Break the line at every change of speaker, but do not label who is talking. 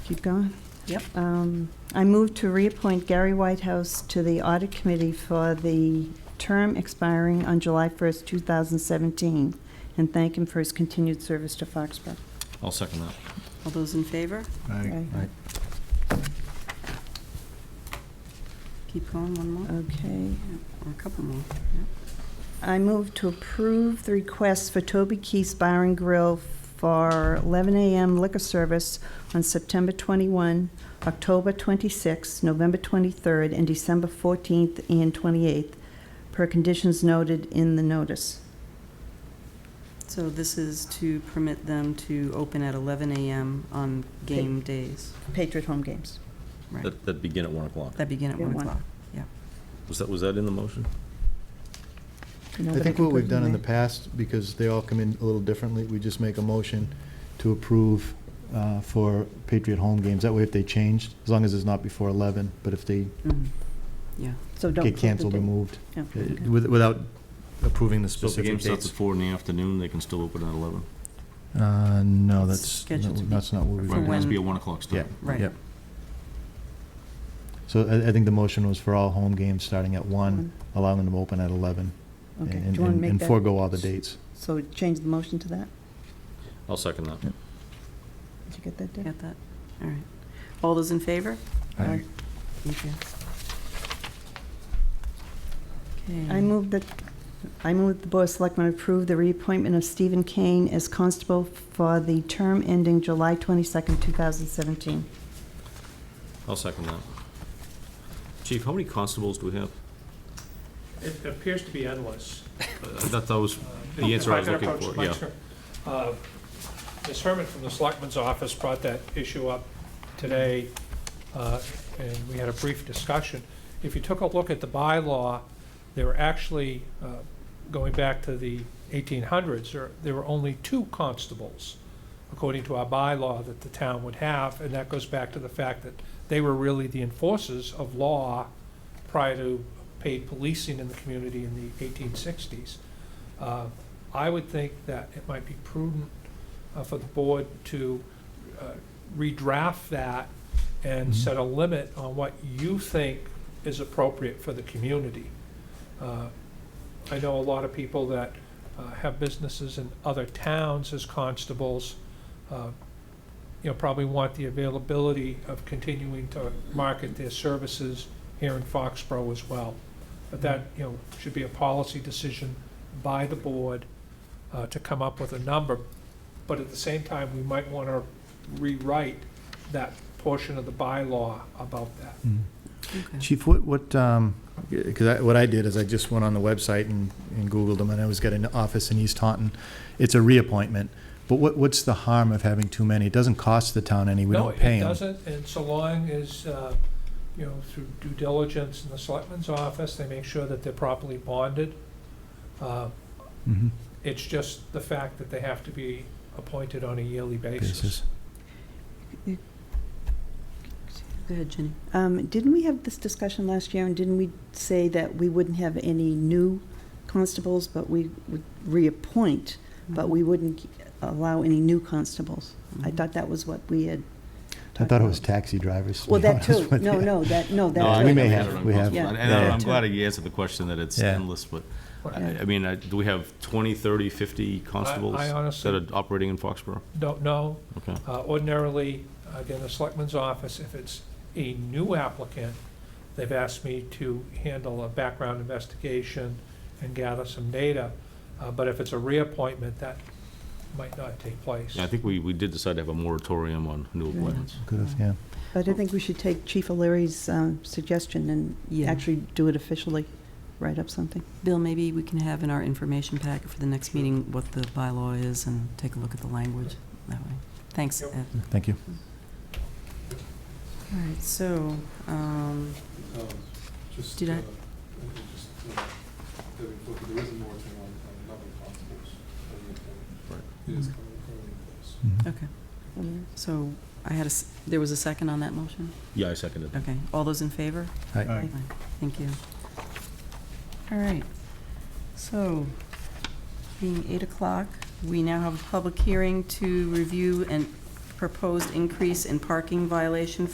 Keep going.
Yep.
Um, I move to reappoint Gary Whitehouse to the Audit Committee for the term expiring on July 1st, 2017, and thank him for his continued service to Foxborough.
I'll second that.
All those in favor?
Aye.
Keep going, one more,
Uh, Okay.
or a couple more.
I move to approve the request for Toby Keith's Bar and Grill for 11 a.m. liquor service on September 21, October 26, November 23rd, and December 14th and 28th, per conditions noted in the notice.
So this is to permit them to open at 11 a.m. on game days
Patriot home games.
Right.
That, that begin at 1 o'clock.
that begin at
Yeah,
1
one.
o'clock.
Was that, was that in the motion?
No,
I
but
think
could
what we've
put
done in the
there.
past, because they all come in a little differently, we just make a motion to approve uh, for Patriot home games. That way, if they changed, as long as it's not before 11, but if they
Mhm.
Mm-hmm.
Yeah,
So don't put
get
the
canceled or
date.
moved,
Yeah,
uh,
okay.
with- without approving the
So if
specific
the game
dates.
starts at 4 in the afternoon, they can still open at 11?
Uh, no,
It's
that's,
scheduled to be
that's not what we've
For
Right, it
done.
has to be a
when-
1 o'clock start.
Yeah.
right.
Yep. So I, I think the motion was for all home games starting at 1, allowing them to open at 11, and-
Okay, do
and
you want to
and-
make
and
that,
forego all the dates.
so change the motion to that?
I'll second that.
Did you get that, Dick?
Got that? All right. All those in favor?
Aye.
Thank you. Okay.
I move that, I move that the Board of Selectmen approve the reappointment of Stephen Kane as constable for the term ending July 22nd, 2017.
I'll second that. Chief, how many constables do we have?
It appears to be endless.
Uh, That, that was,
Uh,
The
if
answer I was
can
looking
approach
for,
the mic,
yeah.
sure. Uh, Ms. Herman from the Selectman's Office brought that issue up today, uh, and we had a brief discussion. If you took a look at the bylaw, there were actually, uh, going back to the 1800s, there- there were only two constables, according to our bylaw, that the town would have, and that goes back to the fact that they were really the enforcers of law prior to paid policing in the community in the 1860s. Uh, I would think that it might be prudent uh, for the board to uh, redraft that and
Mhm.
set a limit on what you think is appropriate for the community. Uh, I know a lot of people that uh, have businesses in other towns as constables, uh, you know, probably want the availability of continuing to market their services here in Foxborough as well. But that,
Mm.
you know, should be a policy decision by the board uh, to come up with a number. But at the same time, we might want to rewrite that portion of the bylaw about that.
Mm-hmm.
Okay.
Chief, what, what, um, because I, what I did is I just went on the website and, and Googled them, and I was got an office in East Taunton. It's a reappointment, but what, what's the harm of having too many? It doesn't cost the town any, we don't pay
No, it
them.
doesn't, and so long as, uh, you know, through due diligence in the selectman's office, they make sure that they're properly bonded. Uh,
Mhm.
It's just the fact that they have to be appointed on a yearly
Basis.
basis.
Go ahead, Jenny.
Um, Didn't we have this discussion last year, and didn't we say that we wouldn't have any new constables, but we would reappoint, but we wouldn't allow any new constables? I
Mhm.
thought that was what we had.
I thought it was taxi drivers. to
Well,
be
that
honest
too.
with
No,
you.
no, that, no,
No, I
that.
we
think
may
we
have-
it on
we have-
constable.
Yeah.
And and
Yeah.
I'm glad you answered the question that it's
Yeah.
endless, but, I
Right.
I mean, I- do we have 20, 30, 50 constables
I
that
honestly
are operating in Foxborough?
don't know.
Okay.
Uh, Ordinarily, again, the selectman's office, if it's a new applicant, they've asked me to handle a background investigation and gather some data. Uh, But if it's a reappointment, that might not take place.
Yeah, I think we, we did decide to have a moratorium on new
Yeah.
appointments.
Could've, yeah.
But I think we should take Chief O'Leary's uh, suggestion and
Yeah.
actually do it officially, write up something.
Bill, maybe we can have in our information packet for the next meeting what the bylaw is and take a look at the language that way. Thanks,
Yep.
Ed.
Thank you.
All right, so, um,
Um, Just,
Did I-
uh, uh, just, uh, that we look, there is a moratorium on on another constables. uh, reappointment. It is
Mhm.
currently currently in place.
Mhm.
okay,
Mm-hmm.
so I had a, s- there was a second on that motion?
Yeah, I seconded that.
Okay, all those in favor?
Aye.
Aye.
Thank you. All right, so, being eight o'clock, we now have a public hearing to review and proposed increase in parking violation